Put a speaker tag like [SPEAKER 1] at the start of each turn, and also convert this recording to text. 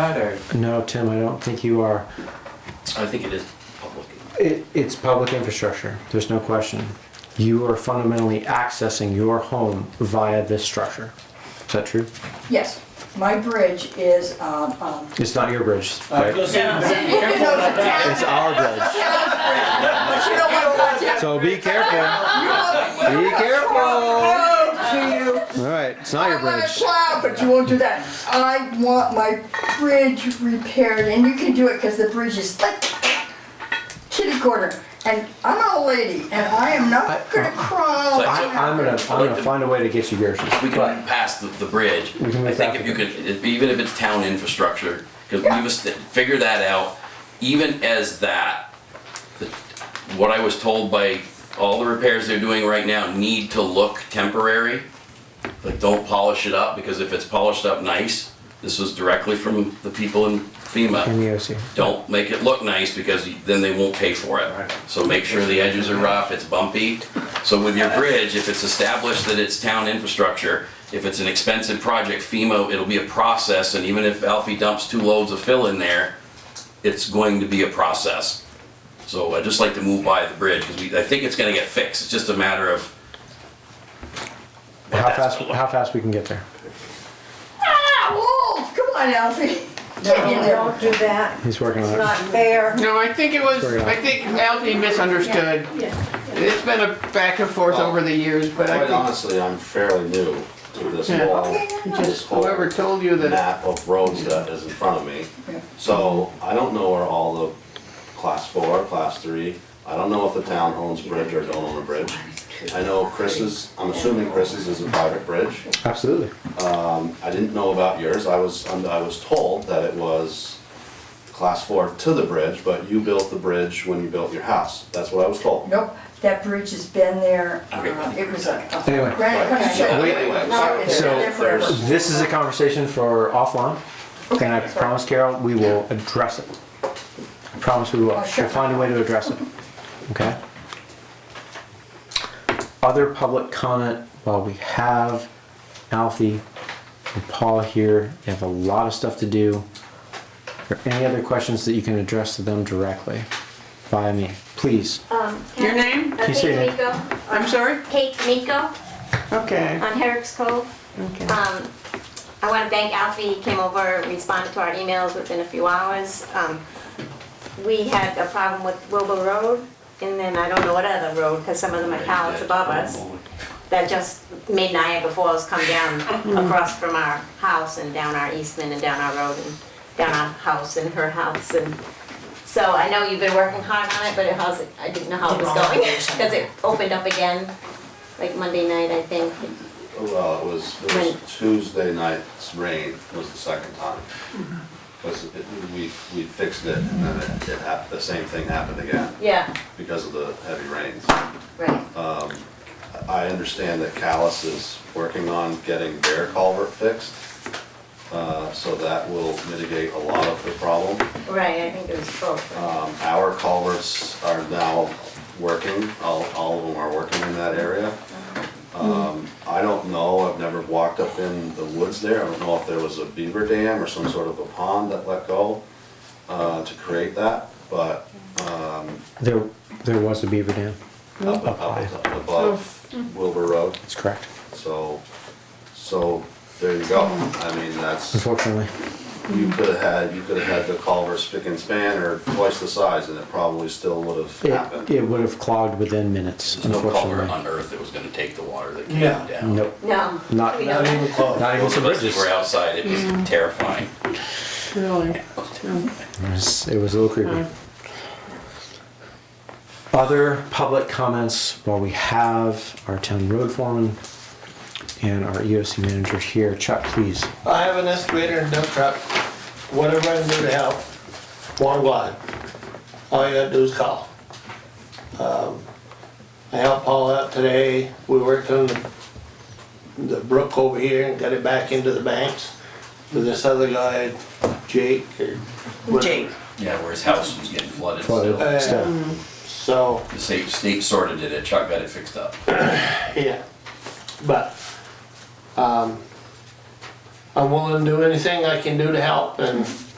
[SPEAKER 1] that, or?
[SPEAKER 2] No, Tim, I don't think you are.
[SPEAKER 3] I think it is public.
[SPEAKER 2] It, it's public infrastructure. There's no question. You are fundamentally accessing your home via this structure. Is that true?
[SPEAKER 4] Yes, my bridge is, um, um,
[SPEAKER 2] It's not your bridge,
[SPEAKER 5] Uh,
[SPEAKER 2] right? It's our bridge.
[SPEAKER 4] but you don't wanna watch it.
[SPEAKER 2] So be careful.
[SPEAKER 4] You want-
[SPEAKER 2] Be careful.
[SPEAKER 4] you want to
[SPEAKER 2] All right, it's not your
[SPEAKER 4] I wanna
[SPEAKER 2] bridge.
[SPEAKER 4] plow, but you won't do that. I want my bridge repaired, and you can do it, cause the bridge is like kitty corner. And I'm an old lady, and I am
[SPEAKER 2] I-
[SPEAKER 4] not gonna crawl.
[SPEAKER 3] Like,
[SPEAKER 2] I, I'm gonna, I'm gonna find a way to get you yours.
[SPEAKER 3] We can
[SPEAKER 2] But
[SPEAKER 3] pass the, the bridge.
[SPEAKER 2] We can
[SPEAKER 3] I
[SPEAKER 2] make
[SPEAKER 3] think
[SPEAKER 2] that
[SPEAKER 3] if you could, if- even if it's town infrastructure, because we was, figure that out, even as that, the- what I was told by all the repairs they're doing right now need to look temporary. Like, don't polish it up, because if it's polished up nice, this was directly from the people in
[SPEAKER 2] in
[SPEAKER 3] FEMA.
[SPEAKER 2] the OC.
[SPEAKER 3] Don't make it look nice, because then they won't pay for it. So make sure the edges are rough, it's bumpy. So with your bridge, if it's established that it's town infrastructure, if it's an expensive project, FEMA, it'll be a process, and even if Alfie dumps two loads of fill in there, it's going to be a process. So I'd just like to move by the bridge, because we, I think it's gonna get fixed, it's just a matter of. what
[SPEAKER 2] How
[SPEAKER 3] that's
[SPEAKER 2] fast,
[SPEAKER 3] gonna look
[SPEAKER 2] how fast we can get there.
[SPEAKER 4] Ah, whoa, come on, Alfie. Get in
[SPEAKER 5] No,
[SPEAKER 4] there.
[SPEAKER 5] don't do that.
[SPEAKER 2] He's working
[SPEAKER 5] It's
[SPEAKER 2] on
[SPEAKER 5] not
[SPEAKER 2] it.
[SPEAKER 5] fair.
[SPEAKER 6] No, I think it was,
[SPEAKER 2] Sorry.
[SPEAKER 6] I think Alfie misunderstood. It's been a back and forth over the years, but I
[SPEAKER 7] Quite
[SPEAKER 6] think
[SPEAKER 7] honestly, I'm fairly new to this
[SPEAKER 6] Yeah.
[SPEAKER 7] whole,
[SPEAKER 4] Okay, no, no.
[SPEAKER 7] this whole
[SPEAKER 6] whoever told you that,
[SPEAKER 7] map of roads that is in front of me.
[SPEAKER 4] Yeah.
[SPEAKER 7] So I don't know where all the class four, class three, I don't know if the town owns a bridge or don't own a bridge. I know Chris's, I'm assuming Chris's is a private bridge.
[SPEAKER 2] Absolutely.
[SPEAKER 7] I didn't know about yours, I was, I was told that it was class four to the bridge, but you built the bridge when you built your house. That's what I was told.
[SPEAKER 4] Nope, that bridge has been there, uh,
[SPEAKER 3] Okay, I think
[SPEAKER 4] it was a a
[SPEAKER 2] Anyway.
[SPEAKER 4] granite
[SPEAKER 7] Right, so
[SPEAKER 4] construction.
[SPEAKER 7] anyway,
[SPEAKER 4] No, it's
[SPEAKER 7] so
[SPEAKER 4] been there forever.
[SPEAKER 7] there's-
[SPEAKER 2] This is a conversation for offline, and I
[SPEAKER 4] Okay.
[SPEAKER 2] promise Carol, we will address it. I promise we will.
[SPEAKER 4] Oh, sure.
[SPEAKER 2] We'll find a way to address it, okay? Other public comment, while we have Alfie and Paul here, they have a lot of stuff to do. Are there any other questions that you can address to them directly via me, please?
[SPEAKER 8] Um,
[SPEAKER 6] Your name?
[SPEAKER 8] Uh,
[SPEAKER 2] You say
[SPEAKER 8] Kate
[SPEAKER 2] it.
[SPEAKER 8] Miko.
[SPEAKER 6] I'm sorry?
[SPEAKER 8] Kate Miko
[SPEAKER 6] Okay.
[SPEAKER 8] on Herrick's Cove.
[SPEAKER 6] Okay.
[SPEAKER 8] Um, I want to thank Alfie, he came over, responded to our emails within a few hours. Um, we had a problem with Wilbur Road, and then I don't know what other road, because some of them are towers above us, that just made Niagara Falls come down across from our house and down our Eastman and down our road and down our house and her house and So I know you've been working hard on it, but it how's it, I didn't know how it was going, because it opened up again, like Monday night, I think.
[SPEAKER 7] Well, it was, it
[SPEAKER 8] Right.
[SPEAKER 7] was Tuesday night's rain was the second time. Was, it- we, we fixed it and then it, it hap, the same thing happened again
[SPEAKER 8] Yeah,
[SPEAKER 7] because of the heavy rains.
[SPEAKER 8] right.
[SPEAKER 7] I understand that Callis is working on getting their culvert fixed. Uh, so that will mitigate a lot of the problem.
[SPEAKER 8] Right, I think it was both. right?
[SPEAKER 7] Um, our culverts are now working, all, all of them are working in that area. Um, I don't know, I've never walked up in the woods there, I don't know if there was a beaver dam or some sort of a pond that let go, uh, to create that, but, um,
[SPEAKER 2] There, there was a beaver dam.
[SPEAKER 7] up, up, up above Wilbur Road,
[SPEAKER 2] That's correct,
[SPEAKER 7] so, so, there you go. I mean, that's,
[SPEAKER 2] unfortunately.
[SPEAKER 7] you could have had, you could have had the culvert spick and span or twice the size and it probably still would have happened.
[SPEAKER 2] It, it would have clogged within minutes,
[SPEAKER 3] There's no culvert
[SPEAKER 2] unfortunately.
[SPEAKER 3] on earth that was gonna take the water that came
[SPEAKER 1] Yeah.
[SPEAKER 3] down.
[SPEAKER 2] Nope,
[SPEAKER 8] No.
[SPEAKER 2] not,
[SPEAKER 8] we don't.
[SPEAKER 2] Not even
[SPEAKER 3] Most
[SPEAKER 2] some
[SPEAKER 3] of us that
[SPEAKER 2] bridges.
[SPEAKER 3] were outside, it was
[SPEAKER 2] Mm.
[SPEAKER 3] terrifying.
[SPEAKER 6] Really?
[SPEAKER 2] It was, it was a little creepy. Other public comments, while we have our town road foreman and our EOC manager here, Chuck, please.
[SPEAKER 1] I have an excavator and dump truck, whatever I can do to help, one glide. All you gotta do is call. Um, I helped Paul out today, we worked on the, the brook over here and got it back into the banks. With this other guy, Jake or whatever.
[SPEAKER 5] Jake.
[SPEAKER 3] Yeah, where his house was getting flooded.
[SPEAKER 2] Flooded.
[SPEAKER 1] Uh,
[SPEAKER 2] Steph.
[SPEAKER 1] So,
[SPEAKER 3] The state, state sorted it, Chuck got it fixed up.
[SPEAKER 1] yeah, but, um, I'm willing to do anything I can do to help and